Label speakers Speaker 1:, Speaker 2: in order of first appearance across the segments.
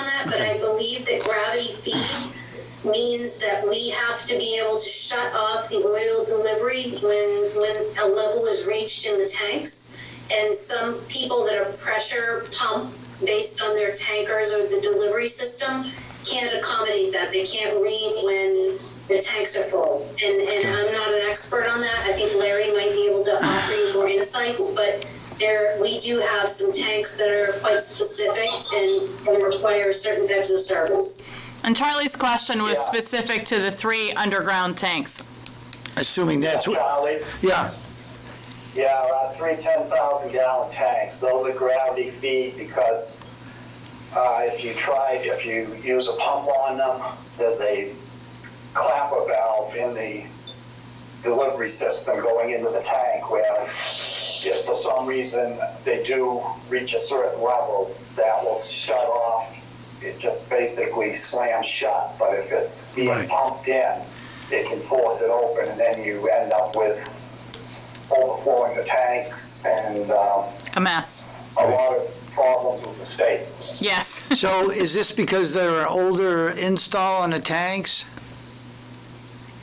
Speaker 1: that, but I believe that gravity feed means that we have to be able to shut off the oil delivery when, when a level is reached in the tanks. And some people that are pressure pump based on their tankers or the delivery system can't accommodate that. They can't read when the tanks are full. And, and I'm not an expert on that. I think Larry might be able to offer you more insights, but there, we do have some tanks that are quite specific and, and require certain types of service.
Speaker 2: And Charlie's question was
Speaker 3: Yeah.
Speaker 2: specific to the three underground tanks.
Speaker 4: assuming that's what,
Speaker 3: Charlie,
Speaker 4: yeah,
Speaker 3: yeah, around three 10,000 gallon tanks. Those are gravity feed because uh, if you try, if you use a pump on them, there's a clapper valve in the delivery system going into the tank where if for some reason they do reach a certain level, that will shut off. It just basically slams shut, but if it's being
Speaker 4: Right.
Speaker 3: pumped in, it can force it open and then you end up with overflowing the tanks and um,
Speaker 2: A mess.
Speaker 3: a lot of problems with the state.
Speaker 2: Yes.
Speaker 4: so is this because they're older install on the tanks?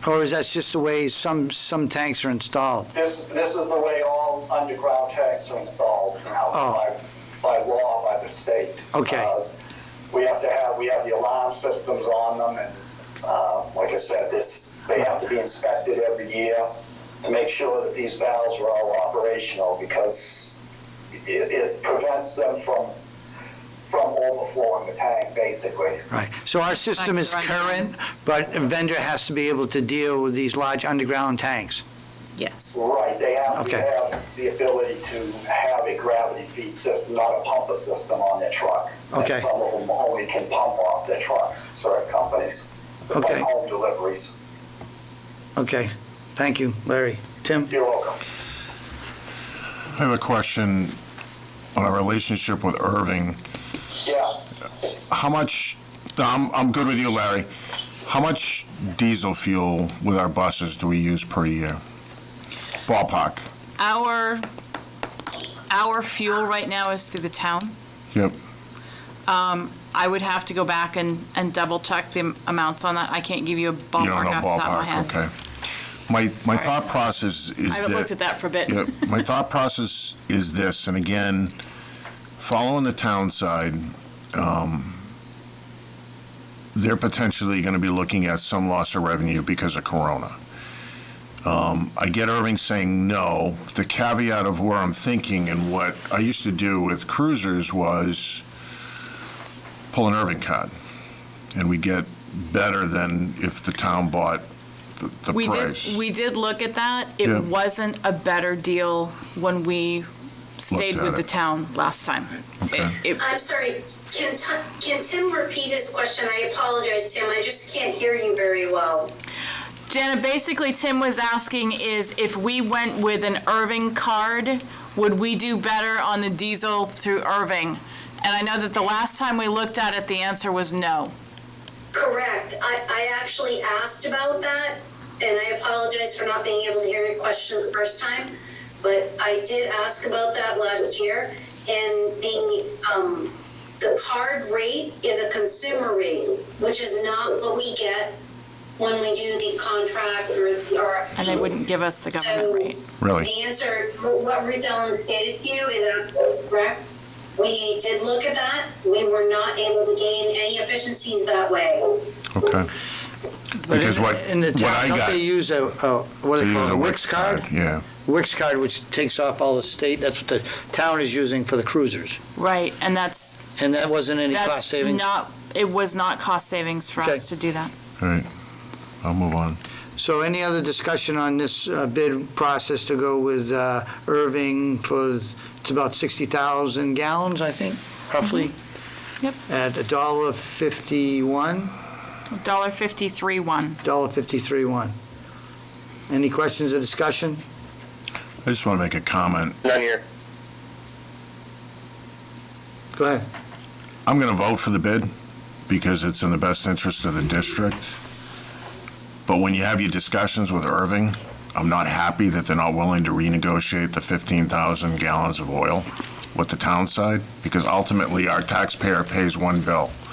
Speaker 4: Or is that just the way some, some tanks are installed?
Speaker 3: This, this is the way all underground tanks are installed now by, by law, by the state.
Speaker 4: Okay.
Speaker 3: Uh, We have to have, we have the alarm systems on them and, uh, like I said, this, they have to be inspected every year to make sure that these valves are all operational because it, it prevents them from, from overflowing the tank, basically.
Speaker 4: Right, so our system is
Speaker 2: Back to
Speaker 4: current, but a vendor has to be able to deal with these large underground tanks.
Speaker 2: Yes.
Speaker 3: Right, they have to
Speaker 4: Okay.
Speaker 3: have the ability to have a gravity feed system, not a pumper system on their truck. And
Speaker 4: Okay.
Speaker 3: Some of them only can pump off their trucks, certain companies, like
Speaker 4: Okay.
Speaker 3: home deliveries.
Speaker 4: Okay, thank you, Larry. Tim?
Speaker 3: You're welcome.
Speaker 5: I have a question on our relationship with Irving.
Speaker 3: Yeah,
Speaker 5: How much, I'm, I'm good with you, Larry. How much diesel fuel with our buses do we use per year? Ballpark.
Speaker 2: Our, our fuel right now is through the town.
Speaker 5: Yep.
Speaker 2: I would have to go back and, and double check the amounts on that. I can't give you a
Speaker 5: You don't
Speaker 2: ballpark
Speaker 5: know
Speaker 2: off the top of my
Speaker 5: ballpark,
Speaker 2: head.
Speaker 5: okay. My, my thought process is that.
Speaker 2: I haven't looked at that for a bit.
Speaker 5: Yep. My thought process is this, and again, following the town side, um, they're potentially going to be looking at some loss of revenue because of Corona. Um, I get Irving saying no. The caveat of where I'm thinking and what I used to do with cruisers was pull an Irving card, and we get better than if the town bought the, the
Speaker 2: We
Speaker 5: price.
Speaker 2: did, we did look at that. It
Speaker 5: Yeah.
Speaker 2: wasn't a better deal when we stayed
Speaker 5: at
Speaker 2: with the
Speaker 5: it.
Speaker 2: town last time. It-
Speaker 5: Okay.
Speaker 2: it-
Speaker 1: I'm sorry, can, Ti- can Tim repeat his question? I apologize, Tim, I just can't hear you very well.
Speaker 2: Jana, basically Tim was asking is if we went with an Irving card, would we do better on the diesel through Irving? And I know that the last time we looked at it, the answer was no.
Speaker 1: Correct, I, I actually asked about that, and I apologize for not being able to hear your question the first time, but I did ask about that last year, and the, um, the card rate is a consumer rate, which is not what we get when we do the contract or the RFP.
Speaker 2: And they wouldn't give us the government
Speaker 1: So
Speaker 2: rate.
Speaker 5: Really?
Speaker 1: The answer, what Ruth Ellen stated to you is absolutely correct. We did look at that. We were not able to gain any efficiencies that way.
Speaker 5: okay.
Speaker 4: But
Speaker 5: Because
Speaker 4: in-
Speaker 5: what-
Speaker 4: In the
Speaker 5: what I
Speaker 4: town, don't
Speaker 5: got-
Speaker 4: they use a, a- what do
Speaker 5: They
Speaker 4: they call
Speaker 5: use
Speaker 4: it,
Speaker 5: a
Speaker 4: a Wix card?
Speaker 5: Yeah.
Speaker 4: Wix card, which takes off all the state, that's what the town is using for the cruisers.
Speaker 2: Right, and that's,
Speaker 4: And that wasn't any cost
Speaker 2: that's
Speaker 4: savings?
Speaker 2: not, it was not cost savings for
Speaker 4: Okay.
Speaker 2: us to do that.
Speaker 5: All right, I'll move on.
Speaker 4: So any other discussion on this uh, bid process to go with uh, Irving for, it's about 60,000 gallons, I think, roughly?
Speaker 2: Yep.
Speaker 4: At a dollar fifty-one,
Speaker 2: Dollar fifty-three one.
Speaker 4: dollar fifty-three one. Any questions or discussion?
Speaker 5: I just want to make a comment.
Speaker 6: None here.
Speaker 4: Go ahead.
Speaker 5: I'm going to vote for the bid because it's in the best interest of the district. But when you have your discussions with Irving, I'm not happy that they're not willing to renegotiate the 15,000 gallons of oil with the town side because ultimately our taxpayer pays one bill.